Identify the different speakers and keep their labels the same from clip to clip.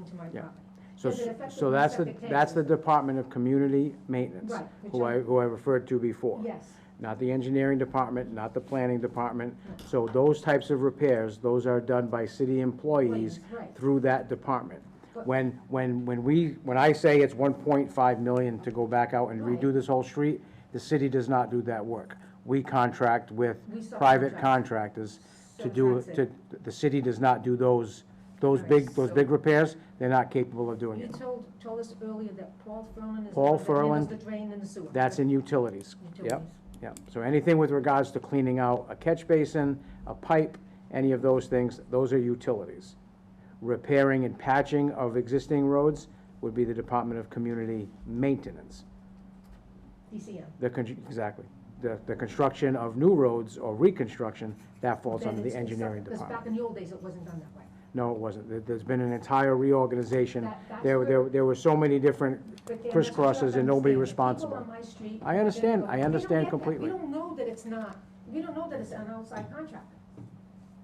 Speaker 1: to my
Speaker 2: Yeah.
Speaker 1: property.
Speaker 2: So,
Speaker 1: Does it
Speaker 2: s-
Speaker 1: affect
Speaker 2: so
Speaker 1: the
Speaker 2: that's the,
Speaker 1: septic tank?
Speaker 2: that's the Department of Community Maintenance,
Speaker 1: Right, which
Speaker 2: who I,
Speaker 1: I-
Speaker 2: who I referred to before.
Speaker 1: Yes,
Speaker 2: Not the engineering department, not the planning department. So those types of repairs, those are done by city employees
Speaker 1: Employees, right.
Speaker 2: through that department.
Speaker 1: But-
Speaker 2: When, when, when we, when I say it's one point five million to go back out and redo
Speaker 1: Right.
Speaker 2: this whole street, the city does not do that work. We contract with
Speaker 1: We subcontract.
Speaker 2: private contractors
Speaker 1: So
Speaker 2: to do,
Speaker 1: that's
Speaker 2: to, the city does not do those, those
Speaker 1: All right,
Speaker 2: big, those
Speaker 1: so-
Speaker 2: big repairs. They're not capable of doing
Speaker 1: you
Speaker 2: it.
Speaker 1: told, told us earlier that Paul Furlan is the
Speaker 2: Paul
Speaker 1: one that handles
Speaker 2: Ferland,
Speaker 1: the drain and the sewer.
Speaker 2: That's in utilities. Yep,
Speaker 1: Utilities.
Speaker 2: yep. So anything with regards to cleaning out a catch basin, a pipe, any of those things, those are utilities. Repairing and patching of existing roads would be the Department of Community Maintenance.
Speaker 1: DCM.
Speaker 2: The, con- exactly. The, the construction of new roads or reconstruction, that falls
Speaker 1: Then
Speaker 2: under the
Speaker 1: it's- it's
Speaker 2: engineering
Speaker 1: not- 'cause
Speaker 2: department.
Speaker 1: back in the old days, it wasn't done that way.
Speaker 2: No, it wasn't. There- There's been an entire reorganization.
Speaker 1: That- that's
Speaker 2: There,
Speaker 1: where-
Speaker 2: there, there were so many different,
Speaker 1: But then that's what you have
Speaker 2: Crisscrosses
Speaker 1: to
Speaker 2: and nobody
Speaker 1: understand. The
Speaker 2: responsible.
Speaker 1: People on my street.
Speaker 2: I understand.
Speaker 1: they
Speaker 2: I
Speaker 1: go, "We don't
Speaker 2: understand
Speaker 1: get that.
Speaker 2: completely."
Speaker 1: We don't know that it's not, we don't know that it's an outside contractor.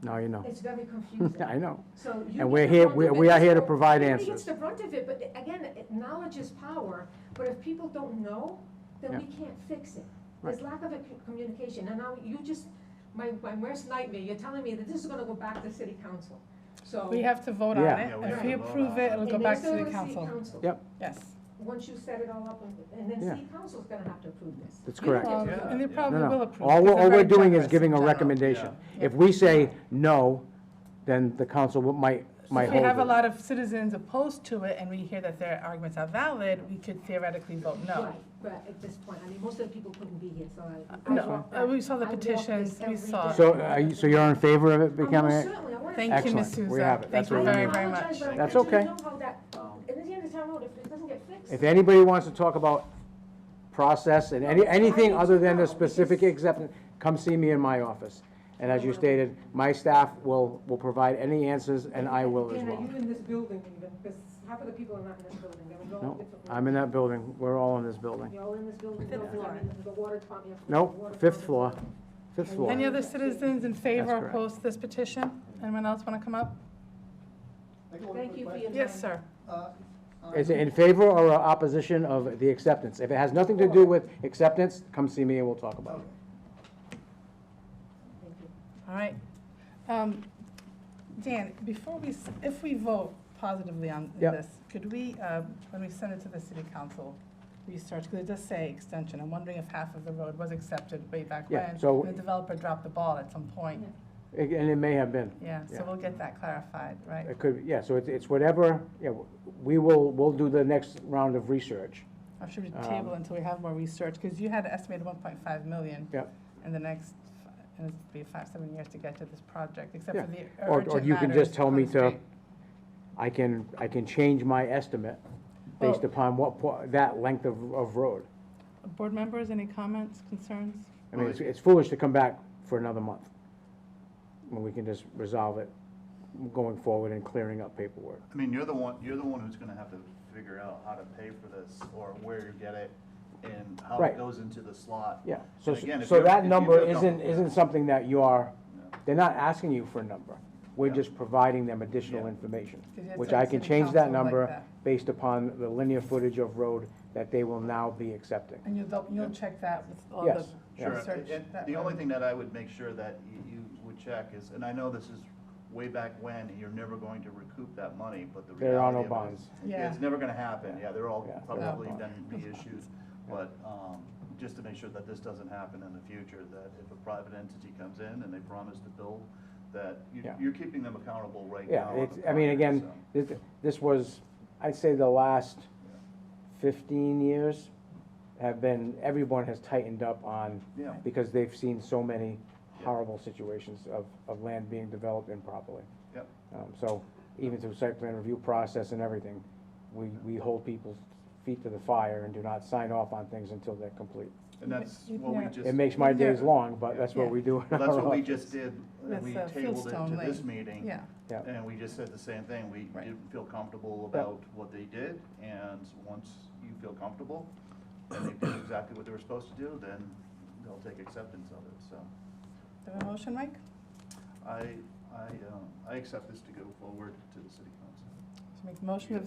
Speaker 2: now you know.
Speaker 1: It's very confusing.
Speaker 2: I know.
Speaker 1: So you.
Speaker 2: And
Speaker 1: get
Speaker 2: we're
Speaker 1: the
Speaker 2: here-
Speaker 1: brunt of
Speaker 2: we-
Speaker 1: it.
Speaker 2: we are here to
Speaker 1: So
Speaker 2: provide
Speaker 1: everybody gets
Speaker 2: answers.
Speaker 1: the brunt of it, but again, it- knowledge is power, but if people don't know, then we can't fix it. There's lack of a c- communication, and now you just, my, my worst nightmare, you're telling me that this is gonna go back to city council, so.
Speaker 3: We have to vote on
Speaker 2: Yeah.
Speaker 3: it.
Speaker 4: Yeah, we have
Speaker 3: If
Speaker 4: to
Speaker 3: we
Speaker 4: vote
Speaker 3: approve
Speaker 4: on
Speaker 3: it,
Speaker 4: it.
Speaker 3: it'll go
Speaker 1: And
Speaker 3: back
Speaker 1: it's
Speaker 3: to
Speaker 1: gonna
Speaker 3: the
Speaker 1: go city
Speaker 3: council.
Speaker 2: Yep.
Speaker 3: Yes.
Speaker 1: Once you set it all up, and- and then
Speaker 2: Yeah.
Speaker 1: city council's gonna have to approve this.
Speaker 2: That's
Speaker 1: You
Speaker 2: correct.
Speaker 1: don't
Speaker 3: Um,
Speaker 1: get to-
Speaker 4: Yeah.
Speaker 3: And they
Speaker 4: No,
Speaker 3: probably
Speaker 2: No,
Speaker 3: will
Speaker 2: no,
Speaker 3: approve.
Speaker 2: all,
Speaker 3: because
Speaker 2: we're-
Speaker 3: they're
Speaker 2: all we're
Speaker 3: very
Speaker 2: doing is
Speaker 3: generous
Speaker 2: giving a
Speaker 3: in general.
Speaker 2: recommendation.
Speaker 3: yeah.
Speaker 2: If we say no, then the council will- might, might
Speaker 3: If we
Speaker 2: hold
Speaker 3: have a
Speaker 2: it.
Speaker 3: lot of citizens opposed to it and we hear that their arguments are valid, we could theoretically vote no.
Speaker 1: Right, but at this point, I mean, most of the people couldn't be here, so I. I
Speaker 3: No,
Speaker 1: walk
Speaker 3: uh,
Speaker 1: that-
Speaker 3: we saw the
Speaker 1: I walk
Speaker 3: petitions,
Speaker 1: this
Speaker 3: we
Speaker 1: every
Speaker 3: saw.
Speaker 1: day.
Speaker 2: So, are you, so you're in favor of it
Speaker 1: Oh, most
Speaker 2: becoming, a-
Speaker 1: certainly, I wanna
Speaker 3: Thank you, Ms.
Speaker 2: Excellent. We
Speaker 3: Souza.
Speaker 2: have it. That's
Speaker 3: Thank
Speaker 2: what
Speaker 3: you
Speaker 2: we
Speaker 3: very,
Speaker 2: need.
Speaker 3: very
Speaker 1: I
Speaker 3: much.
Speaker 1: apologize, but I
Speaker 2: That's
Speaker 1: actually
Speaker 2: okay.
Speaker 1: know how that- and at the end of the town road, if it doesn't get fixed.
Speaker 2: if anybody wants to talk about process and any,
Speaker 1: No, I
Speaker 2: anything
Speaker 1: need
Speaker 2: other
Speaker 1: to
Speaker 2: than
Speaker 1: know,
Speaker 2: the specific acceptance, come see me in my office. And as you stated, my staff will, will provide any answers and I will as
Speaker 1: Dan,
Speaker 2: well.
Speaker 1: are you in this building even? Because half of the people are not in this building, they're in all
Speaker 2: No,
Speaker 1: different.
Speaker 2: I'm in that building. We're all in this building.
Speaker 1: You're all in this building,
Speaker 3: Fifth
Speaker 1: no,
Speaker 3: floor.
Speaker 1: I'm in the water department. you have to go to the
Speaker 2: No,
Speaker 1: water
Speaker 2: fifth floor,
Speaker 1: department.
Speaker 2: fifth floor.
Speaker 3: Any other citizens in favor
Speaker 2: That's
Speaker 3: or
Speaker 2: correct.
Speaker 3: opposed to this petition? Anyone else want to come up?
Speaker 1: Thank you Uh, for your time.
Speaker 3: Yes, sir.
Speaker 2: Is it in favor or opposition of the acceptance? If it has nothing to do with acceptance, come see me and we'll talk about it.
Speaker 1: Thank you.
Speaker 3: All right. Um, Dan, before we, s- if we vote positively on
Speaker 2: Yep.
Speaker 3: this, could we, um, when we send it to the city council, research, because it does say extension, I'm wondering if half of the road was accepted way back
Speaker 2: Yeah,
Speaker 3: when,
Speaker 2: so-
Speaker 3: and the developer dropped the ball at some point.
Speaker 2: And it may have been.
Speaker 3: Yeah,
Speaker 2: Yeah.
Speaker 3: so we'll get that clarified, right?
Speaker 2: It could, yeah, so it's- it's whatever, yeah, we will, we'll do the next round of research.
Speaker 3: Or should we
Speaker 2: Um,
Speaker 3: table until we have more research? Because you had estimated 1.5 million
Speaker 2: Yep.
Speaker 3: in the next, fi- and it's be five, seven years to get to this project, except
Speaker 2: Yeah.
Speaker 3: for the
Speaker 2: Or- or
Speaker 3: urgent
Speaker 2: you can just
Speaker 3: matters
Speaker 2: tell
Speaker 3: on
Speaker 2: me
Speaker 3: the
Speaker 2: to-
Speaker 3: street.
Speaker 2: I can, I can change my estimate based upon what, po- that length of, of road.
Speaker 3: Board members, any comments, concerns?
Speaker 2: I mean, it's- it's foolish to come back for another month when we can just resolve it going forward and clearing up paperwork.
Speaker 4: I mean, you're the one, you're the one who's gonna have to figure out how to pay for this, or where you get it, and how
Speaker 2: Right.
Speaker 4: it goes into the slot.
Speaker 2: Yeah, so,
Speaker 4: And again, if
Speaker 2: so
Speaker 4: you're-
Speaker 2: that
Speaker 4: if you
Speaker 2: number
Speaker 4: look up-
Speaker 2: isn't, isn't something that you are,
Speaker 4: No.
Speaker 2: they're not asking you for a number. We're
Speaker 4: Yeah.
Speaker 2: just providing them additional
Speaker 4: Yeah.
Speaker 2: information,
Speaker 3: Because it's
Speaker 2: which
Speaker 3: on
Speaker 2: I
Speaker 3: the
Speaker 2: can
Speaker 3: city
Speaker 2: change that
Speaker 3: council like
Speaker 2: number
Speaker 3: that.
Speaker 2: based upon the linear footage of road that they will now be accepting.
Speaker 3: And you'll, dou- you'll check that with all the
Speaker 2: Yes, yeah.
Speaker 4: Sure,
Speaker 3: research?
Speaker 4: and
Speaker 3: that
Speaker 4: the
Speaker 3: way.
Speaker 4: only thing that I would make sure that you, you would check is, and I know this is way back when, and you're never going to recoup that money, but the
Speaker 2: There are
Speaker 4: reality
Speaker 2: no
Speaker 4: of it
Speaker 2: bonds.
Speaker 4: is-
Speaker 3: Yeah.
Speaker 4: It's never gonna happen, yeah, they're all
Speaker 2: Yeah, there are no
Speaker 4: probably then reissued, but, um, just to make sure that this doesn't happen in the future, that if a private entity comes in and they promise to build, that you,
Speaker 2: Yeah.
Speaker 4: you're keeping them accountable right now.
Speaker 2: Yeah,
Speaker 4: on the
Speaker 2: it's, I mean,
Speaker 4: project,
Speaker 2: again,
Speaker 4: so.
Speaker 2: this, this was, I'd say the last fifteen years have been, everyone has tightened up on,
Speaker 4: Yeah.
Speaker 2: because they've seen so many
Speaker 4: Yeah.
Speaker 2: horrible situations of, of land being developed improperly.
Speaker 4: Yep.
Speaker 2: Um, so even through site plan review process and everything, we, we hold people's feet to the fire and do not sign off on things until they're complete.
Speaker 4: And that's
Speaker 3: You-
Speaker 4: what we
Speaker 3: yeah.
Speaker 4: just.
Speaker 2: It makes my days
Speaker 3: Yeah.
Speaker 2: long, but that's what
Speaker 3: Yeah.
Speaker 2: we do. in
Speaker 4: Well, that's
Speaker 2: our
Speaker 4: what we
Speaker 2: office.
Speaker 4: just did, and
Speaker 3: That's,
Speaker 4: we
Speaker 3: uh,
Speaker 4: tabled it
Speaker 3: Fieldstone
Speaker 4: to this
Speaker 3: Lane.
Speaker 4: meeting.
Speaker 3: Yeah,
Speaker 2: Yeah.
Speaker 4: And we just said the same thing, we
Speaker 3: Right.
Speaker 4: didn't feel comfortable
Speaker 2: Yeah.
Speaker 4: about what they did, and once you feel comfortable, and they did exactly what they were supposed to do, then they'll take acceptance of it, so.
Speaker 3: do we have a motion, Mike?
Speaker 4: I, I, um, I accept this to go forward to the city council.
Speaker 3: So Make motion of